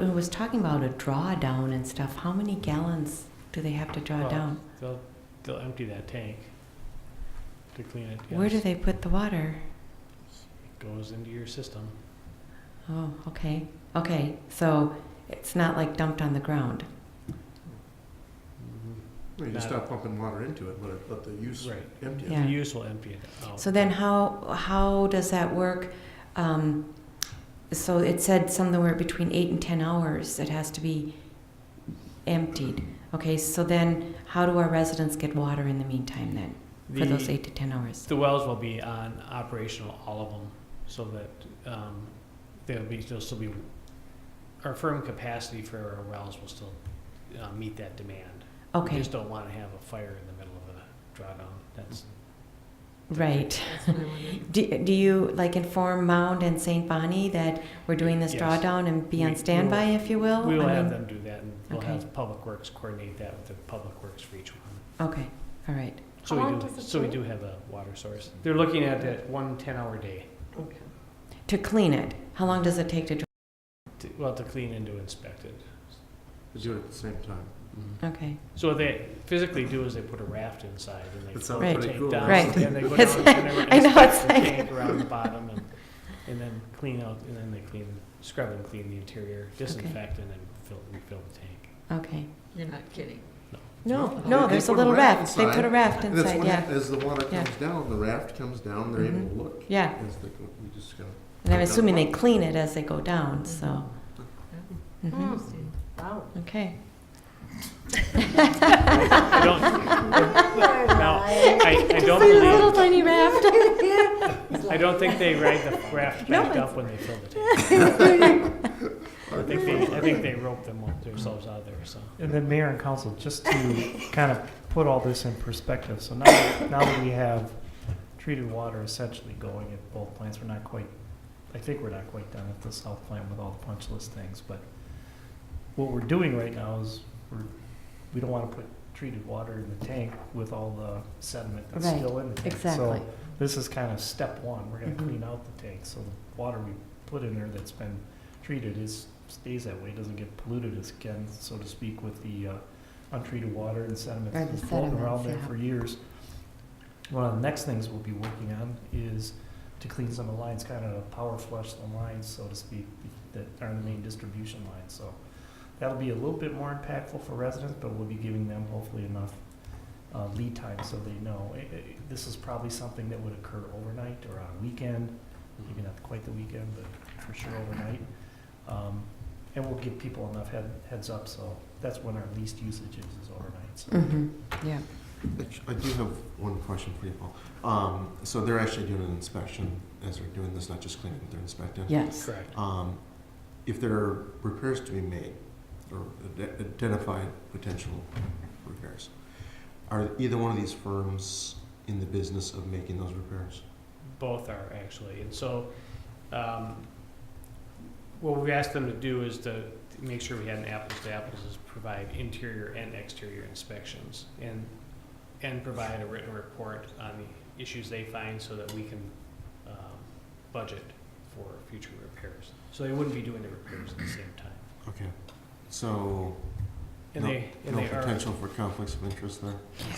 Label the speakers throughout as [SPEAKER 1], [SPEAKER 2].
[SPEAKER 1] It was talking about a drawdown and stuff. How many gallons do they have to draw
[SPEAKER 2] Well,
[SPEAKER 1] down?
[SPEAKER 2] They'll, they'll empty that tank to clean it.
[SPEAKER 1] Where do
[SPEAKER 2] yes.
[SPEAKER 1] they put the water?
[SPEAKER 2] Goes into your system.
[SPEAKER 1] Oh, okay. Okay, so it's not like dumped on the ground.
[SPEAKER 3] Well, You just
[SPEAKER 2] Not-
[SPEAKER 3] stop pumping water into it, let it, let the use
[SPEAKER 2] Mm-hmm. Right.
[SPEAKER 3] empty it.
[SPEAKER 1] Yeah.
[SPEAKER 2] The use will empty it out.
[SPEAKER 1] So then how, how does that work? Um, so it said somewhere between eight and 10 hours it has to be emptied. Okay, so then how do our residents get water in the meantime then for those
[SPEAKER 2] The-
[SPEAKER 1] eight to 10 hours?
[SPEAKER 2] The wells will be on operational, all of them, so that um, there'll be, there'll still be, our firm capacity for our wells will still uh, meet that demand. We
[SPEAKER 1] Okay,
[SPEAKER 2] just don't want to have a fire in the middle of a drawdown. That's,
[SPEAKER 1] right. Do, do you like inform Mound and St. Bonnie that we're doing this
[SPEAKER 2] Yes.
[SPEAKER 1] drawdown and be
[SPEAKER 2] We- we
[SPEAKER 1] on
[SPEAKER 2] will-
[SPEAKER 1] standby, if you will?
[SPEAKER 2] we
[SPEAKER 1] Oh, I
[SPEAKER 2] will have
[SPEAKER 1] mean-
[SPEAKER 2] them do that, and we'll
[SPEAKER 1] Okay.
[SPEAKER 2] have Public Works coordinate that with the Public Works for each one.
[SPEAKER 1] Okay, all right.
[SPEAKER 2] So
[SPEAKER 4] How
[SPEAKER 2] we
[SPEAKER 4] long
[SPEAKER 2] do,
[SPEAKER 4] does it
[SPEAKER 2] so we
[SPEAKER 4] take?
[SPEAKER 2] do have a water source. They're looking at that one ten-hour day,
[SPEAKER 1] To clean it, how long does it take to, dr-
[SPEAKER 2] to- well, to clean and to inspect it.
[SPEAKER 3] They Do it at the same time.
[SPEAKER 1] okay.
[SPEAKER 2] So what they physically do is they put a raft inside and they
[SPEAKER 3] It
[SPEAKER 2] float
[SPEAKER 3] sounds
[SPEAKER 1] Right.
[SPEAKER 2] the
[SPEAKER 3] pretty
[SPEAKER 2] tank
[SPEAKER 3] cool.
[SPEAKER 2] down.
[SPEAKER 1] Right.
[SPEAKER 2] And they go
[SPEAKER 1] It's
[SPEAKER 2] down
[SPEAKER 1] like-
[SPEAKER 2] and they
[SPEAKER 1] I know,
[SPEAKER 2] inspect
[SPEAKER 1] it's
[SPEAKER 2] the
[SPEAKER 1] like-
[SPEAKER 2] tank around the bottom and, and then clean out, and then they clean, scrub and clean the interior, disinfect and then fill, refill the tank.
[SPEAKER 1] Okay.
[SPEAKER 4] You're not kidding.
[SPEAKER 1] No,
[SPEAKER 3] No,
[SPEAKER 1] no,
[SPEAKER 3] they
[SPEAKER 1] there's a
[SPEAKER 3] put a
[SPEAKER 1] little
[SPEAKER 3] raft
[SPEAKER 1] raft. They put a
[SPEAKER 3] inside,
[SPEAKER 1] raft
[SPEAKER 3] And that's
[SPEAKER 1] inside,
[SPEAKER 3] when,
[SPEAKER 1] yeah.
[SPEAKER 3] as the water
[SPEAKER 1] Yeah.
[SPEAKER 3] comes down, the raft comes down, they're able to look.
[SPEAKER 1] Yeah,
[SPEAKER 3] As they go, we just go.
[SPEAKER 1] and I'm assuming they clean it as they go down, so.
[SPEAKER 4] Oh,
[SPEAKER 1] Mhm.
[SPEAKER 3] Mm.
[SPEAKER 4] Wow.
[SPEAKER 1] Okay.
[SPEAKER 2] I don't, now, I, I don't believe,
[SPEAKER 1] tiny raft.
[SPEAKER 2] I don't think they rag the raft
[SPEAKER 1] No,
[SPEAKER 2] back
[SPEAKER 1] it's-
[SPEAKER 2] up when they fill the tank. I think they, I think they rope them up themselves out of there, so.
[SPEAKER 5] And then mayor and council, just to kind of put all this in perspective, so now, that- now that we have treated water essentially going at both plants, we're not quite, I think we're not quite done at the south plant with all the punch list things, but what we're doing right now is we're, we don't wanna put treated water in the tank with all the sediment that's
[SPEAKER 1] Right,
[SPEAKER 5] still in the tank.
[SPEAKER 1] Exactly.
[SPEAKER 5] So this is kind of step one, we're gonna
[SPEAKER 1] Mhm.
[SPEAKER 5] clean out the tank, so the water we put in there that's been treated is, stays that way, doesn't get polluted as again, so to speak, with the uh, untreated water and sediment
[SPEAKER 1] Or the
[SPEAKER 5] that's been floating around
[SPEAKER 1] sediments,
[SPEAKER 5] there
[SPEAKER 1] yeah.
[SPEAKER 5] for years. One of the next things we'll be working on is to clean some of the lines, kind of power flush the lines, so to speak, that are the main distribution lines, so. That'll be a little bit more impactful for residents, but we'll be giving them hopefully enough uh, lead time so they know. Eh, eh, This is probably something that would occur overnight or on a weekend, maybe not quite the weekend, but for sure overnight. Um, And we'll give people enough head, heads up, so that's when our least usage is, is overnight, so.
[SPEAKER 1] Mm-hmm, yeah.
[SPEAKER 3] Actu- I do have one question for you, Paul. Um, so they're actually doing an inspection as they're doing this, not just cleaning, they're inspecting?
[SPEAKER 1] Yes.
[SPEAKER 2] Correct.
[SPEAKER 3] Um, if there are repairs to be made, or ide- identified potential repairs, are either one of these firms in the business of making those repairs?
[SPEAKER 2] Both are actually, and so, um, what we asked them to do is to to make sure we had an apples to apples is provide interior and exterior inspections and, and provide a written report on the issues they find so that we can, um, budget for future repairs. So they wouldn't be doing the repairs at the same time.
[SPEAKER 3] Okay, so,
[SPEAKER 2] And they, and
[SPEAKER 3] no
[SPEAKER 2] they are,
[SPEAKER 3] potential for conflicts of interest there?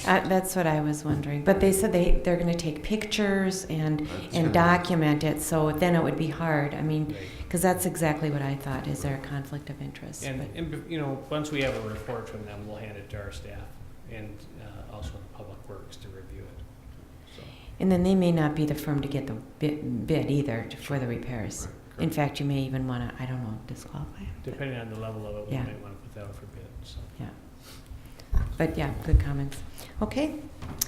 [SPEAKER 1] Uh, That's what I was wondering. But they said they, they're gonna take pictures and,
[SPEAKER 3] That's
[SPEAKER 1] and
[SPEAKER 3] good.
[SPEAKER 1] document it, so then it would be hard. I mean,
[SPEAKER 2] Right.
[SPEAKER 1] because that's exactly what I thought. Is there a conflict of interest?
[SPEAKER 2] And,
[SPEAKER 1] But-
[SPEAKER 2] and, you know, once we have a report from them, we'll hand it to our staff and, uh, also the Public Works to review it, so.
[SPEAKER 1] And then they may not be the firm to get the bi- bid either to- for the repairs. In
[SPEAKER 2] Correct.
[SPEAKER 1] fact, you may even want to, I don't know, disqualify. 'em, but-
[SPEAKER 2] Depending on the level of it, we
[SPEAKER 1] Yeah.
[SPEAKER 2] might want to put that out for bid, so.
[SPEAKER 1] But yeah, good comments. Okay,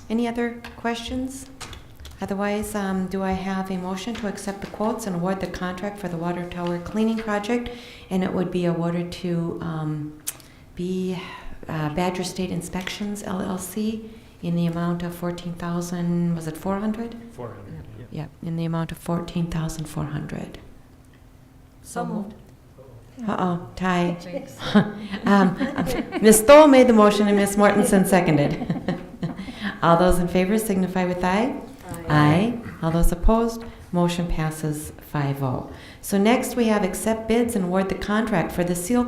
[SPEAKER 1] any other questions? Otherwise, um, do I have a motion to accept the quotes and award the contract for the water tower cleaning project? And it would be awarded to um, B uh, Badger State Inspections LLC in the amount of 14,000, was it 400?
[SPEAKER 2] Four hundred, yeah.
[SPEAKER 1] Yeah, in the amount of 14,400.
[SPEAKER 4] So moved.
[SPEAKER 1] Uh-oh, tie.
[SPEAKER 4] Jinx.
[SPEAKER 1] Um, Ms. Stoll made the motion and Ms. Mortensen seconded. All those in favor signify with aye. Aye. All those opposed, oh. motion passes 5-0. So next, we have accept bids and award the contract for the seal